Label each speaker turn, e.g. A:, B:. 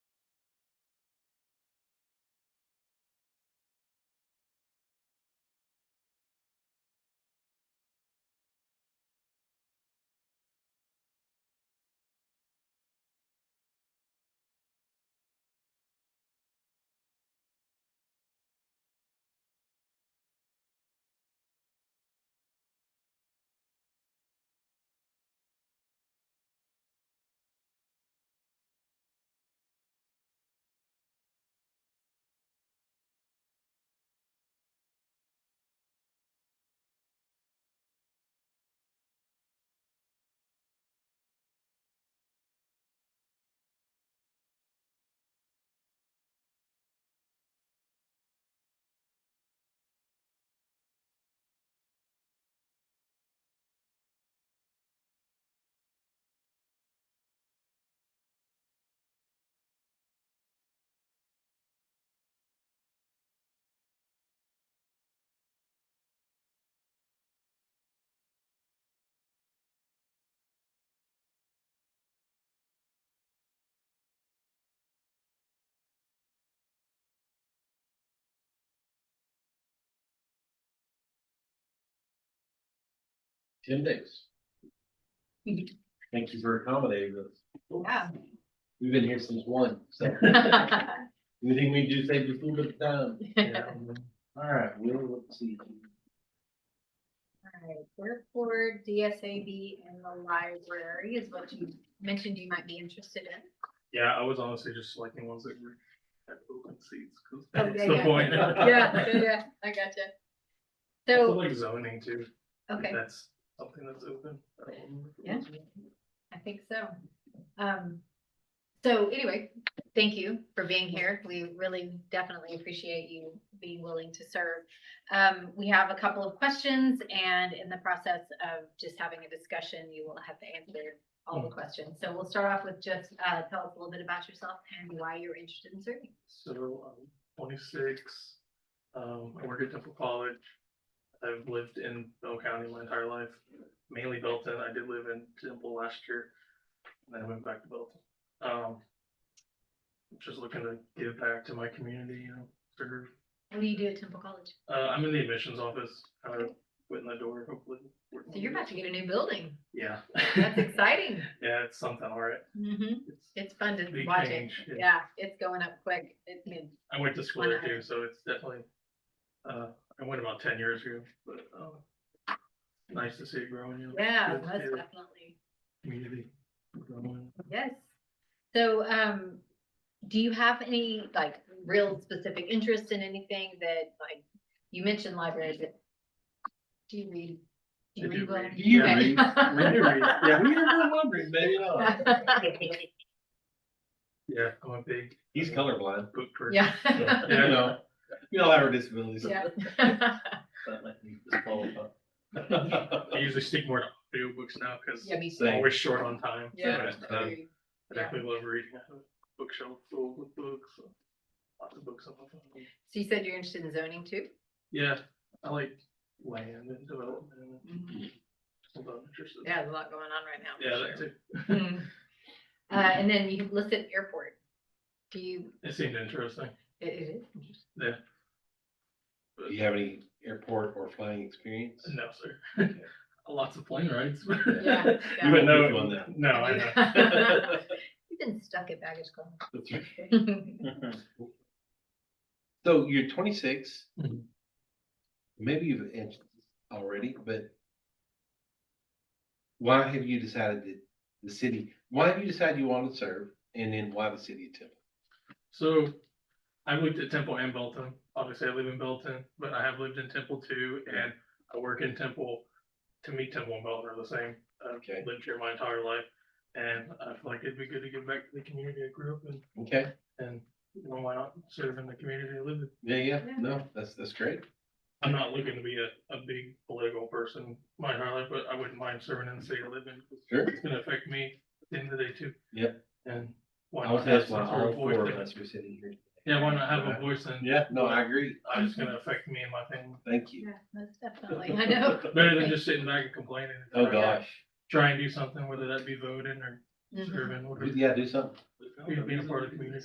A: ten days. Thank you for accommodating us.
B: Yeah.
A: We've been here since one, so everything we do saves us a little bit of time. All right, we'll let's see.
B: Alright, Airport, DSAB, and the library is what you mentioned you might be interested in.
C: Yeah, I was honestly just selecting ones that were at open seats, cause
B: Oh,
C: that's
B: yeah,
C: the
B: yeah.
C: point.
B: Yeah, yeah, yeah, I gotcha.
C: Also
B: So,
C: like zoning too, if
B: okay,
C: that's something that's open. I don't remember if it
B: Yeah.
C: was.
B: I think so. Um, so anyway, thank you for being here. We really definitely appreciate you being willing to serve. Um, we have a couple of questions and in the process of just having a discussion, you will have to answer all the questions. So we'll start off with just, uh, tell us a little bit about yourself and why you're interested in serving.
C: So I'm twenty-six, um, I work at Temple College. I've lived in Bell County my entire life, mainly Belton. I did live in Temple last year. And then I went back to Belton. Um, just looking to give back to my community, you know, serve
B: What do you do at Temple College?
C: Uh, I'm in the admissions office, kind of quitting the door, hopefully.
B: So you're about to get a new building.
C: Yeah.
B: That's exciting.
C: Yeah, it's something, all right.
B: hmm
C: It's
B: It's fun to
C: big
B: watch it.
C: change. yeah.
B: Yeah, it's going up quick. It's been
C: I went to school
B: One
C: there
B: item.
C: too, so it's definitely, uh, I went about ten years ago, but, um, nice to see it growing, you know.
B: Yeah,
C: good to
B: most
C: see the
B: definitely.
C: Community. growing.
B: Yes. So, um, do you have any like real specific interest in anything that like, you mentioned libraries, but do you read?
C: I
B: Do you
C: do
B: read well?
C: read.
A: You
B: Okay.
A: read. We do read. Yeah, we are wondering, maybe not.
C: Yeah, I'm a big
A: He's colorblind.
C: book person.
B: Yeah.
A: so, You know, we all have our disabilities.
B: Yeah.
A: That might be disqualified.
C: I usually stick more to audiobooks now, cause
B: Yeah, me
C: I'm
B: too.
A: Same.
C: always short on time.
B: Yeah.
C: but, um,
B: Agreed.
C: I
B: Yeah.
C: definitely love reading. I have a bookshelf full with books, so lots of books on my phone.
B: So you said you're interested in zoning too?
C: Yeah, I like land and development. and
B: Mm-hmm.
C: stuff I'm interested in.
B: Yeah, there's a lot going on right now. for
C: Yeah,
B: sure.
C: that too.
B: Mm. Uh, and then you listed airport. Do you,
C: It seemed interesting.
B: it it is interesting.
C: Yeah,
A: Do you have any airport or flying experience?
C: no, sir. Lots of plane rides.
B: Yeah,
C: You
B: yeah.
C: wouldn't know.
A: Which one then?
C: No, I know.
B: You've been stuck at baggage claim.
A: That's right. So you're twenty-six.
C: Mhm.
A: Maybe you've answered this already, but why have you decided that the city, why have you decided you want to serve and then why the city of Temple?
C: So I've lived at Temple and Belton. Obviously, I live in Belton, but I have lived in Temple too, and I work in Temple. To me, Temple and Belton are the same. I've
A: Okay.
C: lived here my entire life, and I feel like it'd be good to give back to the community I grew up in,
A: Okay,
C: and you know, why not serve in the community I live in?
A: yeah, yeah,
B: Yeah.
A: no, that's, that's great.
C: I'm not looking to be a, a big political person my entire life, but I wouldn't mind serving in the city I live in.
A: Sure.
C: It's gonna affect me at the end of the day too.
A: Yep.
C: And why
A: I was
C: not have
A: that's why
C: some sort
A: all
C: of voice?
A: four of
C: there?
A: us were sitting here.
C: Yeah, why not have a voice and
A: Yeah, no, I agree.
C: I'm just gonna affect me and my family.
A: Thank you.
B: Yeah, most definitely, I know.
C: Better than just sitting back and complaining.
A: Oh,
C: Try-
A: gosh.
C: Try and do something, whether that be voting or
B: Mhm.
C: serving, whatever.
A: Yeah, do something.
C: Being a part of the community.